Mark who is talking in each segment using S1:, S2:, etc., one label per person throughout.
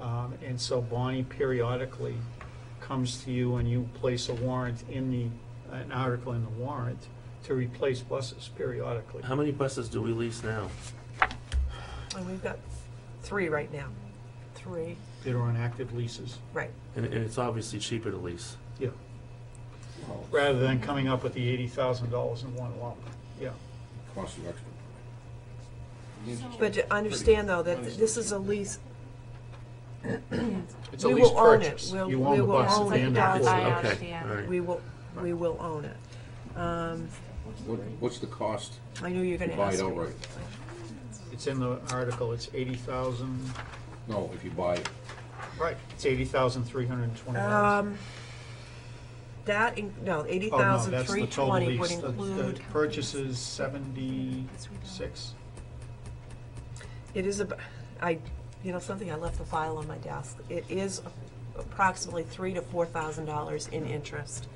S1: Um, And so Bonnie periodically comes to you and you place a warrant in the, an article in the warrant to replace buses periodically.
S2: How many buses do we lease now?
S3: And we've got three right now. Three,
S1: That are on active leases,
S3: right.
S2: And, and it's obviously cheaper to lease.
S1: yeah. Rather than coming up with the eighty thousand dollars in one lump, yeah.
S4: Cost you extra. Oh.
S3: But to understand, though, that this is a lease,
S1: It's a
S3: We
S1: lease
S3: will own it.
S1: purchase.
S3: We'll-
S1: You own
S3: we
S1: the
S3: will
S1: bus
S3: own
S1: at the
S3: it.
S1: end
S3: Yeah,
S1: of the
S2: Oh, Is
S1: lease.
S2: it-
S5: I
S2: Okay,
S5: understand.
S2: all right.
S3: we will, we will own it. Um,
S4: What, what's the cost
S3: I knew you were
S4: to
S3: going to
S4: buy
S3: ask.
S4: it
S3: me.
S4: outright?
S1: It's in the article, it's eighty thousand,
S4: No, if you buy,
S1: right, it's eighty thousand three hundred and twenty dollars.
S3: Um, That, in- no, eighty
S1: Oh,
S3: thousand three twenty would include,
S1: Purchases seventy-six.
S3: it is, ab- I, you know, something, I left the file on my desk. It is approximately three to four thousand dollars in interest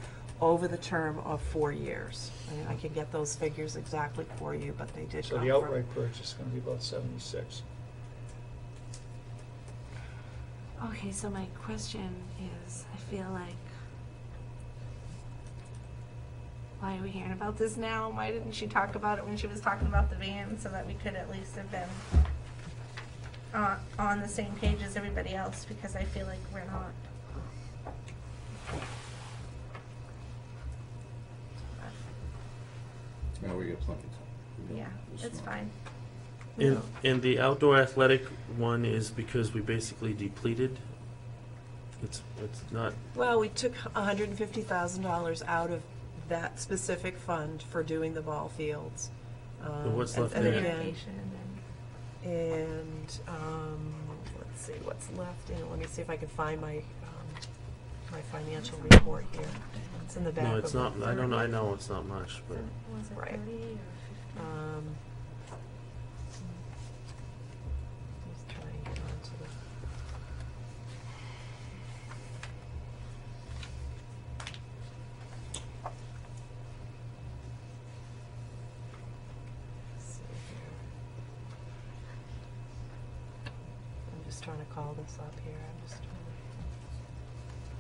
S3: over the term of four years. I mean, I can get those figures exactly for you, but they did
S1: So
S3: come
S1: the
S3: from.
S1: outright purchase is gonna be about seventy-six.
S5: Okay, so my question is, I feel like, why are we hearing about this now? Why didn't she talk about it when she was talking about the van so that we could at least have been on, on the same page as everybody else? Because I feel like we're not.
S4: now we get plenty of time.
S5: Yeah, it's
S4: not-
S5: fine.
S2: And, and the outdoor athletic one is because we basically depleted. It's, it's not,
S3: Well, we took hundred and fifty thousand dollars out of that specific fund for doing the ball fields. um,
S2: what's
S3: and-
S2: left
S3: and
S2: there?
S3: again-
S5: Vacation and-
S3: And, um, let's see, what's left, and let me see if I can find my, um, my financial report here. It's in the back of.
S2: no, it's not,
S3: the-
S2: I don't know, I know it's not much, but
S5: Was it
S3: Right.
S5: 30 or 50?
S3: Um. Just trying to get onto the. Let's see here. I'm just trying to call this up here, I'm just trying to.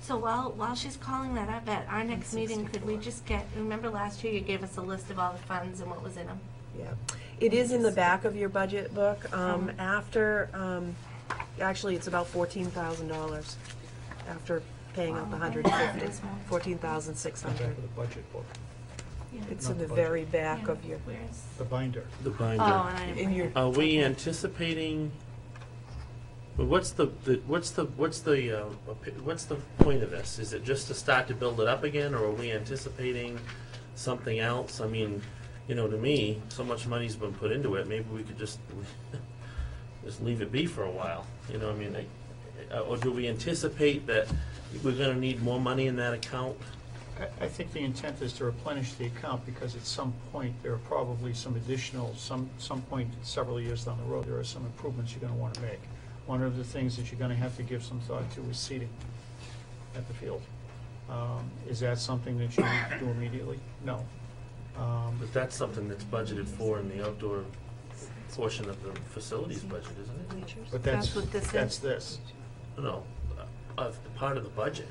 S5: So while, while she's calling that up, at our next meeting, could we just get, remember last year you gave us a list of all the funds and what was in them?
S3: Yeah, it is in the back of your budget book, um,
S5: Mhm.
S3: after, um, actually, it's about fourteen thousand dollars after paying up a hundred and
S5: This
S3: fifty,
S5: one.
S3: fourteen thousand six
S1: It's on top
S3: hundred.
S1: of the budget book,
S5: Yeah.
S3: It's
S1: Not
S3: in the
S1: the budget.
S3: very back
S5: Yeah,
S3: of your,
S5: where's-
S1: the binder.
S2: the binder.
S5: Oh, and I didn't
S3: in
S5: bring
S3: your-
S5: it.
S2: Are we anticipating, but what's the, the- what's the, what's the, uh, opi- what's the point of this? Is it just to start to build it up again, or are we anticipating something else? I mean, you know, to me, so much money's been put into it, maybe we could just, just leave it be for a while, you know, I mean, I- uh, or do we anticipate that we're gonna need more money in that account?
S1: I, I think the intent is to replenish the account because at some point, there are probably some additional, some, some point several years down the road, there are some improvements you're gonna wanna make. One of the things that you're gonna have to give some thought to is seating at the field. Um, Is that something that you need to do immediately? No. Um,
S2: But that's something that's budgeted for in the outdoor portion of the facilities budget, isn't it?
S1: But that's,
S5: That's what this is.
S1: that's this.
S2: No, of the part of the budget.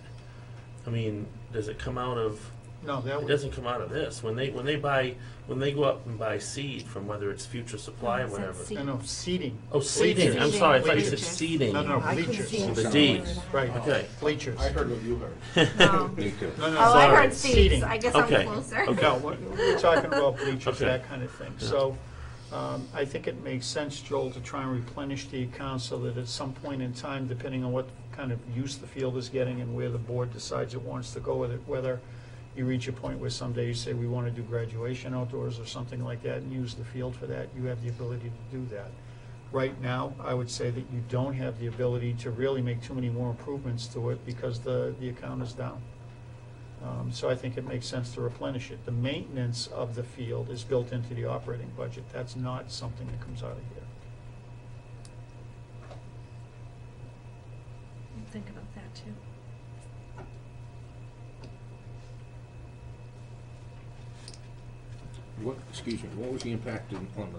S2: I mean, does it come out of,
S1: No, that
S2: it
S1: was,
S2: doesn't come out of this. When they, when they buy, when they go up and buy seed from whether it's future supply or
S5: No, it said
S2: whatever.
S5: seed.
S1: no, no, seating.
S2: Oh, seeding, I'm
S5: Seeding.
S2: sorry, I thought you said
S1: Bleachers.
S2: seeding.
S1: No, no,
S3: I can
S1: bleachers.
S3: see.
S2: The D,
S1: Right.
S2: okay.
S1: Bleachers.
S4: I heard what you heard.
S5: No.
S4: Me too.
S1: No, no,
S5: Oh, I
S1: sorry.
S5: heard seeds,
S1: Seating.
S5: I guess I'm
S2: Okay.
S5: closer.
S2: Okay.
S1: No, we're- we're talking about bleachers,
S2: Okay.
S1: that kind of thing.
S2: Yeah.
S1: So um, I think it makes sense, Joel, to try and replenish the account so that at some point in time, depending on what kind of use the field is getting and where the board decides it wants to go with it, whether you reach a point where someday you say, we want to do graduation outdoors or something like that and use the field for that, you have the ability to do that. Right now, I would say that you don't have the ability to really make too many more improvements to it because the, the account is down. Um, So I think it makes sense to replenish it. The maintenance of the field is built into the operating budget. That's not something that comes out of here.
S5: Think about that too.
S4: What, excuse me, what was the impact in- on